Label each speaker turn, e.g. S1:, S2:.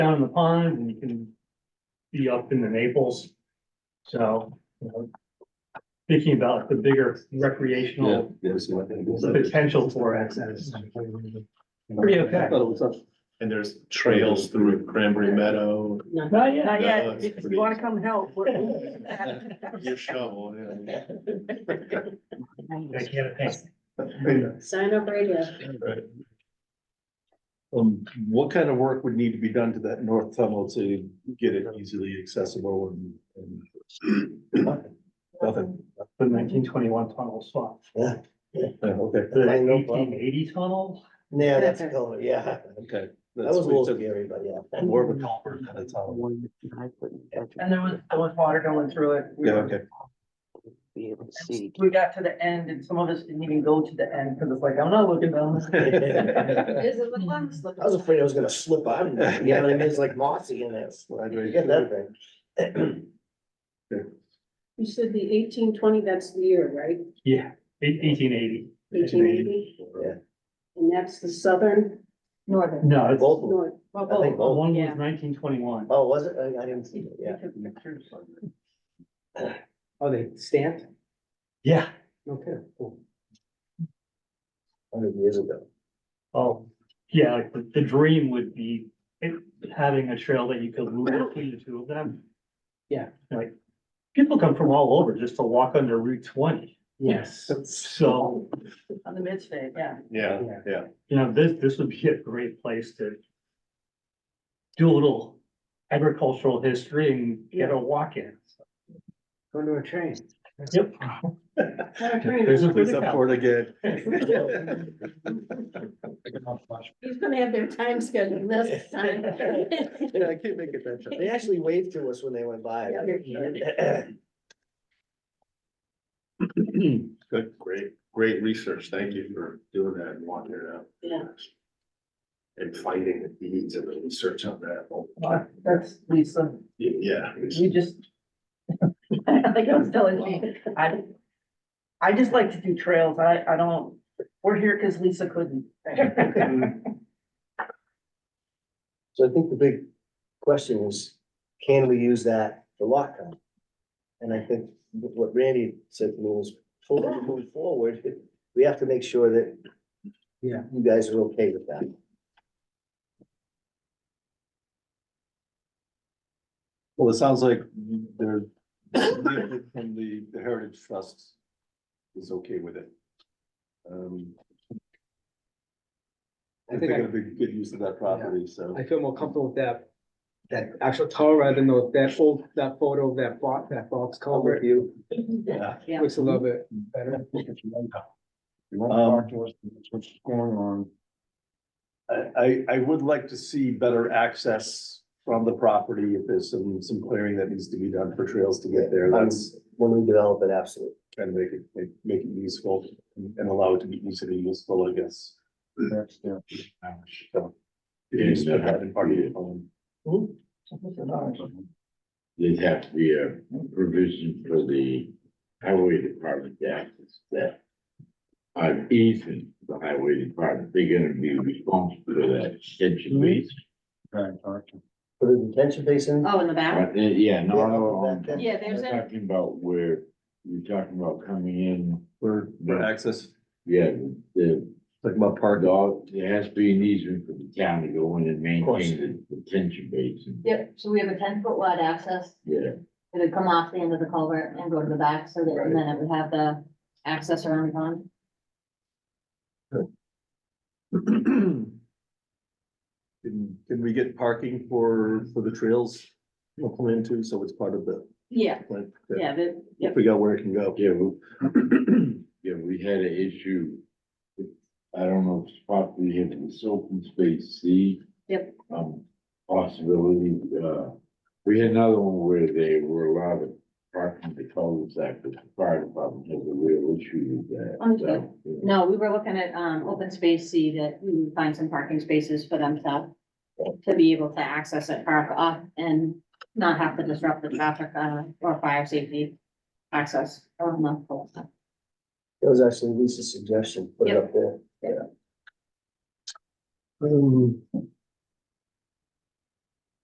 S1: down in the pond and you can be up in the Naples. So, you know, thinking about the bigger
S2: Yeah,
S1: recreational
S2: yeah, so I think it was up.
S1: potential for access. Pretty
S2: I
S1: okay.
S2: thought it was up.
S3: And there's trails through Cranberry Meadow,
S1: Not yet.
S4: Not
S3: No,
S4: yet,
S3: it's
S4: if
S3: pretty-
S4: you wanna come help. we're-
S3: your shovel, yeah.
S1: I can't think.
S4: Sign up radio.
S2: Right. Um, what kind of work would need to be done to that north tunnel to get it easily accessible and, and? Nothing,
S1: The nineteen twenty-one tunnel swap.
S2: Yeah, okay,
S1: The
S5: I know, Bob.
S1: eighteen eighty tunnel,
S5: Yeah, that's a color, yeah.
S2: okay.
S5: That
S2: That's
S5: was a little
S2: we took
S5: scary, but yeah.
S2: More of a culvert kind of tunnel.
S6: And there was, there was water going through it. We
S2: Yeah,
S6: were-
S2: okay,
S5: Be able to see.
S6: We got to the end and some of us didn't even go to the end because it's like, I'm not looking down.
S5: I
S4: Is it the lens? look-
S5: was afraid I was gonna slip on, there, you know what I mean? It's like mossy in there. Get that thing.
S4: You said the eighteen twenty, that's the year, right?
S1: yeah, eighteen eighty.
S4: Eighteen eighty?
S5: Yeah.
S4: And that's the southern? Northern.
S1: No, it's, oh,
S5: Both of them.
S4: North. Well,
S5: I think
S4: both.
S5: both.
S1: one
S4: Yeah.
S1: was nineteen twenty-one.
S5: Oh, was it? I I didn't see it, yeah.
S7: Oh, they stamped?
S1: Yeah,
S7: Okay, cool.
S5: Hundred years ago.
S1: oh, yeah, like, the, the dream would be it- having a trail that you could loop between the two of them.
S7: Yeah.
S1: Like, people come from all over just to walk under Route twenty,
S7: Yes.
S1: so,
S6: On the midstate, yeah.
S3: Yeah,
S1: you know, this, this would be a great place to do a little agricultural history and get a walk in.
S7: Going to a train.
S1: Yep.
S2: There's a place up for it again.
S5: Well,
S4: He's gonna have their time scheduled this time.
S2: Yeah, I can't make it that time.
S5: They actually waved to us when they went by.
S3: good, great, great research. Thank you for doing that and walking it out.
S4: Yeah.
S3: And finding the needs of the research on that.
S6: Well, That's Lisa.
S3: Yeah.
S6: We just. Like I was telling me, I, I just like to do trails. I, I don't, we're here because Lisa couldn't.
S5: So I think the big question is, can we use that for lock on? And I think wh- what Randy said to me was, for- moving forward, we have to make sure that
S7: Yeah.
S5: you guys are okay with that.
S2: Well, it sounds like they're, from the the Heritage Trust is okay with it. Um, I
S7: I
S2: think
S7: think
S2: it'll be good use of that property, so.
S7: I, I feel more comfortable with that, that actual tower rather than those- that old, that photo of that box, that box
S5: I'll
S7: cover.
S5: review.
S2: Yeah.
S4: Yeah.
S7: Looks a little bit better.
S2: Um, I, I, I would like to see better access from the property if there's some, some clearing that needs to be done for trails to get there. That's
S5: When we develop it, absolutely.
S2: trying to make it, make- make it useful and and allow it to be easily useful, I guess. So, it needs to have been part of it, um,
S8: There'd have to be a provision for the highway department to access that. On easement, the highway department, they're gonna be responsible for that extension
S5: Mm-hmm.
S8: base.
S5: Put a detention basin,
S4: Oh, in the back?
S8: But, uh, yeah, no,
S5: Yeah,
S8: no,
S5: that-
S8: I'm-
S5: that-
S4: Yeah, there's
S8: I'm
S4: a-
S8: Talking about where, you're talking about coming in,
S2: for, for access,
S8: yeah, the,
S2: like my
S8: the,
S2: park.
S8: dog- there has to be an easement for the town to go in and
S2: course.
S8: maintain the detention basin.
S9: Yep, so we have a ten foot wide access,
S8: Yeah,
S9: it would come off the end of the culvert and go to the back, so that, and then it would have the access around the pond.
S2: Can, can we get parking for, for the trails? We'll come into, so it's part of the,
S9: Yeah,
S2: like,
S9: yeah, the, yep,
S2: figure out where it can go.
S8: yeah, we- Yeah, we had an issue. I don't know, if it's probably in this open space C.
S9: Yep.
S8: Um, possibility, uh, we had another one where they were allowed to park in the cul-de-sac, but the fire department has a real issue with that.
S9: Understood.
S8: So, yeah.
S9: no, we were looking at, um, open space, see that we would find some parking spaces for them to. To be able to access it, park up and not have to disrupt the traffic, uh, or fire safety access around the whole.
S5: that was actually Lisa's suggestion, put it
S9: Yep.
S5: up there.
S2: Um,